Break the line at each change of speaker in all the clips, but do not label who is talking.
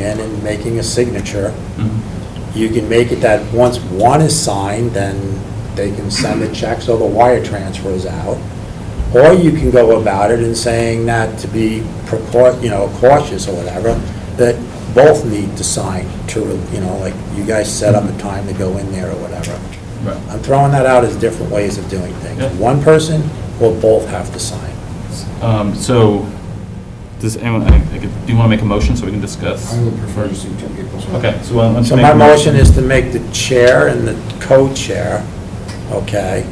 in and making a signature.
Mm-hmm.
You can make it that once one is signed, then they can send the check so the wire transfer is out. Or you can go about it in saying that to be precau, you know, cautious or whatever, that both need to sign to, you know, like you guys set up a time to go in there or whatever.
Right.
I'm throwing that out as different ways of doing things.
Yeah.
One person will both have to sign.
Um, So, does anyone, I I could- do you want to make a motion so we can discuss?
I would prefer to see two people.
Okay, so why don't you
So
make
my
a
motion is to make the chair and the co-chair, okay,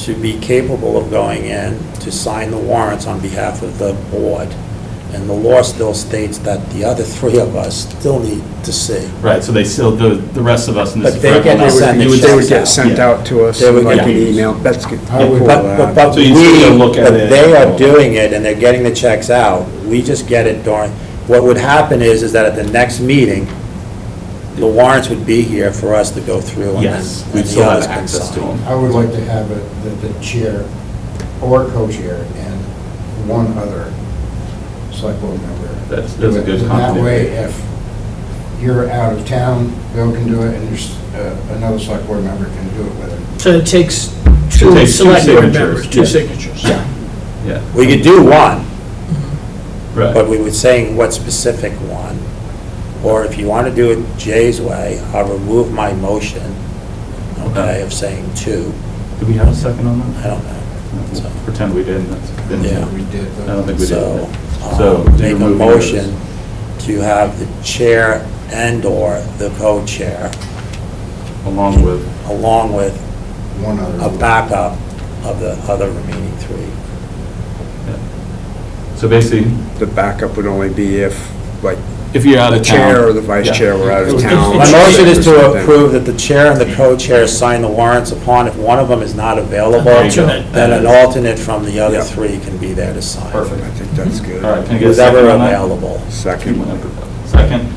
to be capable of going in to sign the warrants on behalf of the board. And the law still states that the other three of us still need to see.
Right, so they still, the, the rest of us in this.
But they get to
forever-
send the
You would- They would get
checks out.
sent out to us,
They would
like
get-
an email, that's good.
I would-
Cool,
But, but-
uh,
but
So
we,
you still gotta look at
but
it.
they are doing it, and they're getting the checks out, we just get it during, what would happen is, is that at the next meeting, the warrants would be here for us to go through, and then,
Yes,
and
we'd
the
still have
others can
access to
sign.
them.
I would like to have it that the chair or co-chair and one other select board member.
That's- that's a good
And That way,
continuity.
if you're out of town, Bill can do it, and there's, uh, another select board member can do it with him.
So it takes
So it
two
takes two
select board
signatures,
members, two
yeah.
signatures.
Yeah,
We could do one, but
right.
we were saying what specific one, or if you want to do it Jay's way, I'll remove my motion, okay,
Okay.
of saying two,
Did we have a second on
I
that?
don't know, so.
We'll Pretend we didn't, that's been,
Yeah.
We did.
I don't think we did.
So,
So,
um,
you
make a
remove
motion to have the chair and/or the co-chair,
Along with,
along with
One other.
a backup of the other remaining three.
so basically,
The backup would only be if, like,
if you're out
the
of town.
chair or the vice
Yeah.
chair were out of town.
My motion is
or
to
something.
approve that the chair and the co-chair sign the warrants upon, if one of them is not available,
There you go.
then an alternate from the other
Yeah.
three can be there to sign.
Perfect.
I think that's good.
All right, can I get a
Who's
second
ever
on that?
available.
Second,
Second,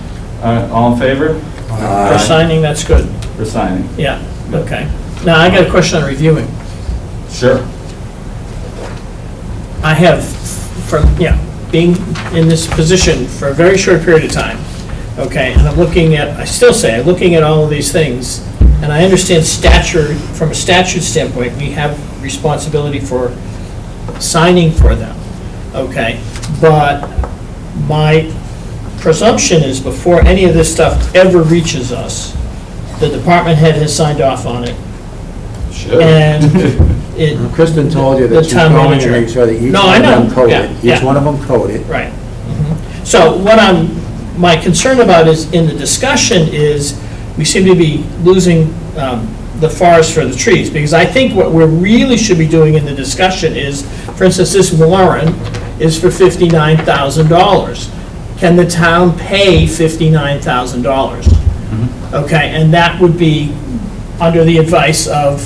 all right, all in favor?
Uh,
For signing, that's good,
We're signing.
yeah, okay. Now, I got a question on reviewing.
Sure.
I have, from, yeah, being in this position for a very short period of time, okay, and I'm looking at, I still say, I'm looking at all of these things, and I understand stature, from a statute standpoint, we have responsibility for signing for them, okay? But my presumption is before any of this stuff ever reaches us, the department head has signed off on it,
Sure.
and it,
Kristen told you
The
that she's
town
going to
manager.
make sure that each
No,
one
I
of
know.
them coded.
Yeah,
Each
yeah.
one of them coded.
Right. Mhm. So what I'm, my concern about is, in the discussion is, we seem to be losing um, the forest for the trees, because I think what we really should be doing in the discussion is, for instance, this warrant is for $59,000. Can the town pay $59,000? Okay, and that would be under the advice of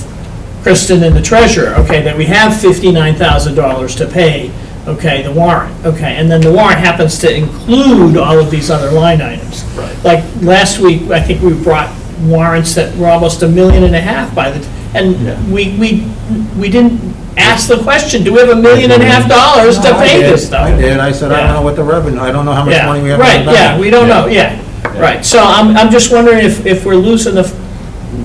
Kristen and the treasurer, okay, that we have $59,000 to pay, okay, the warrant, okay, and then the warrant happens to include all of these other line items. Right. Like, last week, I think we brought warrants that were almost a million and a half by the,
Yeah.
and we, we, we didn't ask the question, do we have a million and a half dollars to
No, I
pay
did.
this stuff?
I did, I said, I don't
Yeah.
know what the revenue, I don't know how much
Yeah,
money we have in the
Right,
bank.
yeah, we don't
Yeah.
know, yeah, right, so I'm, I'm just wondering if, if we're losing the,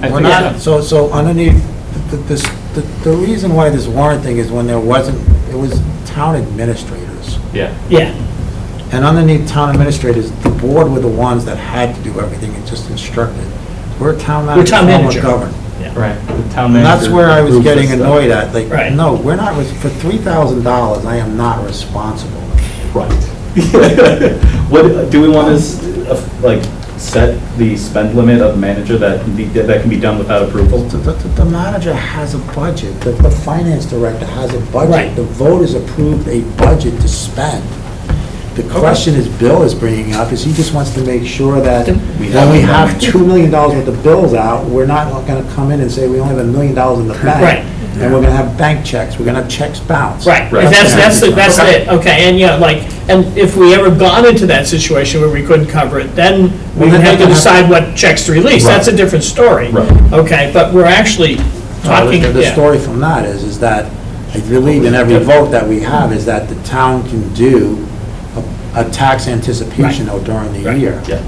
I
We're
think
not,
so.
so, so underneath, the, this, the, the reason why this warrant thing is when there wasn't, it was town administrators.
Yeah.
yeah.
And underneath town administrators, the board were the ones that had to do everything and just instructed. We're town
We're
manager,
town
form
manager.
of government.
Right. The town
And
manager.
that's where I was
approves this uh,
getting
stuff.
annoyed at, like,
Right.
no, we're not, res- for three thousand dollars, I am not responsible.
Right. What, do we want to, s- uh, like, set the spend limit of manager that can be, that can be done without approval?
The, the- the manager has a budget, the, the finance director has a budget.
Right.
The voters approved a budget to spend. The question is Bill is bringing up is he just wants to make sure that
We
when
have
we
the
have
money.
two million dollars worth of bills out, we're not gonna come in and say we only have a million dollars in the bank.
Right.
And we're gonna have bank checks, we're gonna have checks bounce.
Right,
Right.
that's, that's, the- that's it, okay, and yeah, like, and if we ever got into that situation where we couldn't cover it, then
Well,
we
then
would have
that
to
can
decide what checks to release,
Right.
that's a different story.
Right.
Okay, but we're actually
Uh,
talking,
the- The
yeah,
story from that is, is that I believe in every vote that we have is that the town can do a-
a tax anticipation note during the
Right.
year.
Yeah.